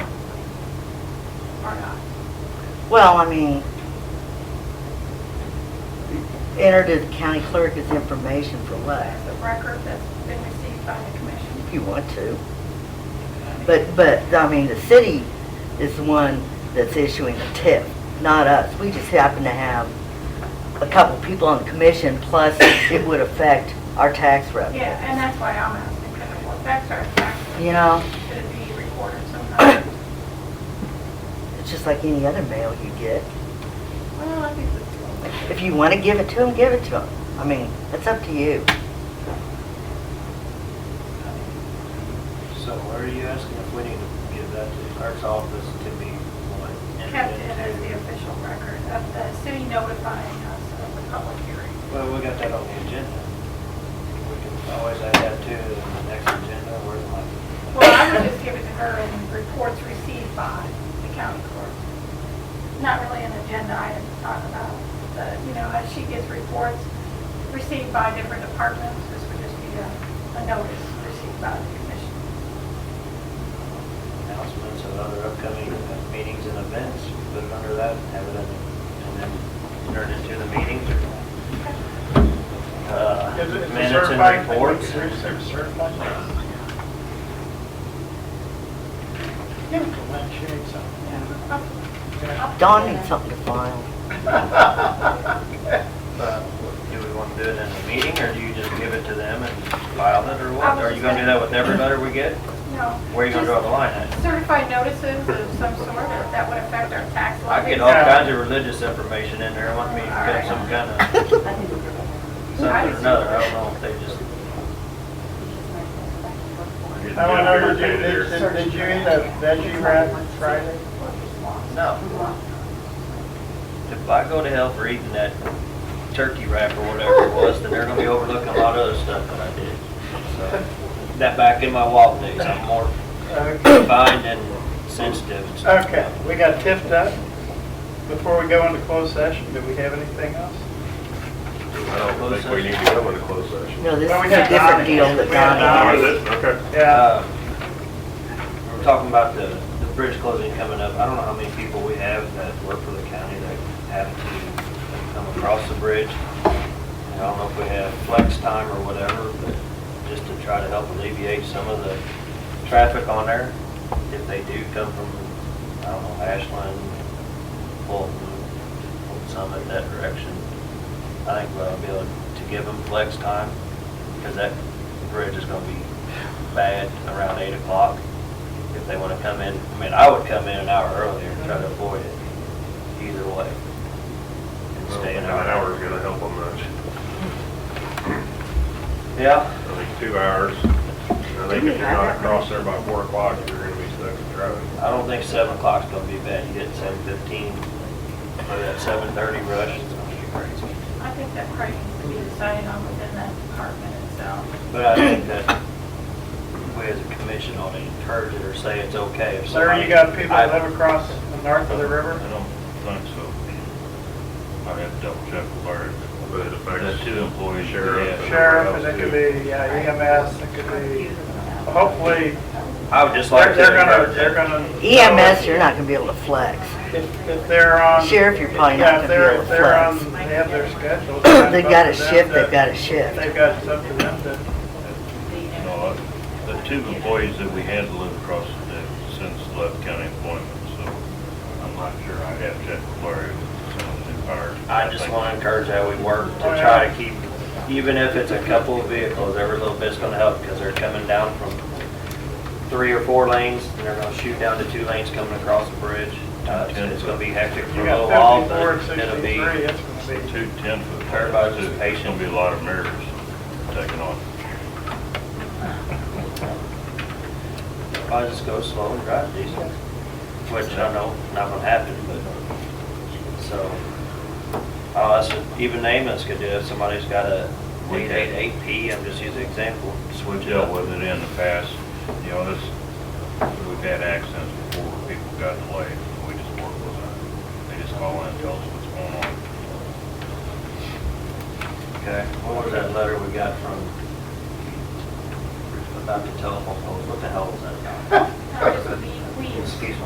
Well, I mean, enter to the county clerk as information for what, as a record that's been received by the commission. if you want to. But, but, I mean, the city is the one that's issuing the tip, not us. We just happen to have a couple people on the commission, plus it would affect our tax revenue, Yeah, and that's why I'm asking, because it will affect our taxes, you know? should it be recorded sometime? It's just like any other mail you get. Well, I think that's. If you want to give it to them, give it to them. I mean, it's up to you. So are you asking if we need to give that to the clerk's office to be what? Kept it as the official record of the city notifying us of the public hearing. Well, we got that on the agenda. We can always add that to the next agenda or like. Well, I would just give it to her in reports received by the county clerk. Not really an agenda item to talk about, but, you know, as she gets reports received by different departments, this would just be a, a notice received by the commission. announcements of other upcoming meetings and events, put it under that, have it in, and then turn it into the meetings or. uh, Is it- is it Minutes certified? and reports. Is it certified? Give it to Lynn, she needs something. Dawn needs something to file. But Do we want to do it in a meeting, or do you just give it to them and file it, or I what? was Are you gonna do that with every letter we get? No. Where are you gonna draw the line at? just Certified notices of some sort that would affect our tax I levy. get all kinds of religious information in there, I want me to get some kind of, something or another, I don't know if they just. I want to know, did you, did did you eat a veggie wrap Friday? No. If I go to hell for eating that turkey wrap or whatever it was, then they're gonna be overlooking a lot of other stuff that I did. So, That back in my walk days, I'm more Okay, refined and sensitive and stuff. Okay. we got tipped up. Before we go into closed session, do we have anything else? I don't think we need to go into closed session. No, this Well, we is a had different Donnie. deal that We had Donnie has. Donnie. it? Okay. Yeah, Uh, we We're talking about the, the bridge closing coming up. I don't know how many people we have that work for the county that have to come across the bridge. And I don't know if we have flex time or whatever, but just to try to help alleviate some of the traffic on there. If they do come from, I don't know, Ashland, Fulton, Fulton Summit, that direction, I think we'll be able to give them flex time because that bridge is gonna be bad around eight o'clock. If they wanna come in, I mean, I would come in an hour earlier and try to avoid it either way. And Well, stay An an hour. hour's gonna help them much. Yeah, I think two hours. I think if you're not across there by four o'clock, you're gonna be stuck in traffic. I don't think seven o'clock's gonna be bad. You get seven fifteen or that seven thirty rush, it's gonna be crazy. I think that probably needs to be decided on within that department itself. But I think that we as a commission ought to encourage it or say it's okay if sir, somebody. you got people I- that live across the north of the river? I don't think so. I have to double check with Larry. But it The affects two employees. we Sheriff have. and- Sheriff, and it could be yeah, EMS, it could be, hopefully, I would just they're like to they're gonna, encourage they're it. gonna. E EMS, you're not gonna be able to flex. If, if they're on. Sheriff, you're probably Yeah, not gonna be if they're, able if they're on, to they flex. have their schedule. They've got a it's up to shift, them they've got a to- They've shift. got it's up to them to, No, I- The two employees that we had live across the, since left county employment, so I'm not sure. I have to check with Larry with some of the fire. I just wanna encourage how we work to try to keep, even if it's a couple of vehicles, every little bit's gonna help because they're coming down from three or four lanes and they're gonna shoot down to two lanes coming across the bridge. Uh, it's- It's gonna be hectic for you a little got while, fifty-four, but it'll be, sixty-three, it's gonna be. Two ten foot. Everybody's There's patient. Gonna be a lot of mirrors taken off. I just go slow and drive decent, which I know not gonna happen, but, so. Uh, that's, even Amos could do it, somebody's got a eight eight eight P, I'm just using example, We switch it dealt up. with it in the past, you know, this, we've had accidents before where people got delayed, and we just work with them. They just call in and tell us what's going on. Okay, what was that letter we got from, about the telephone poles, what the hell was that? Now, just be- we- Excuse me.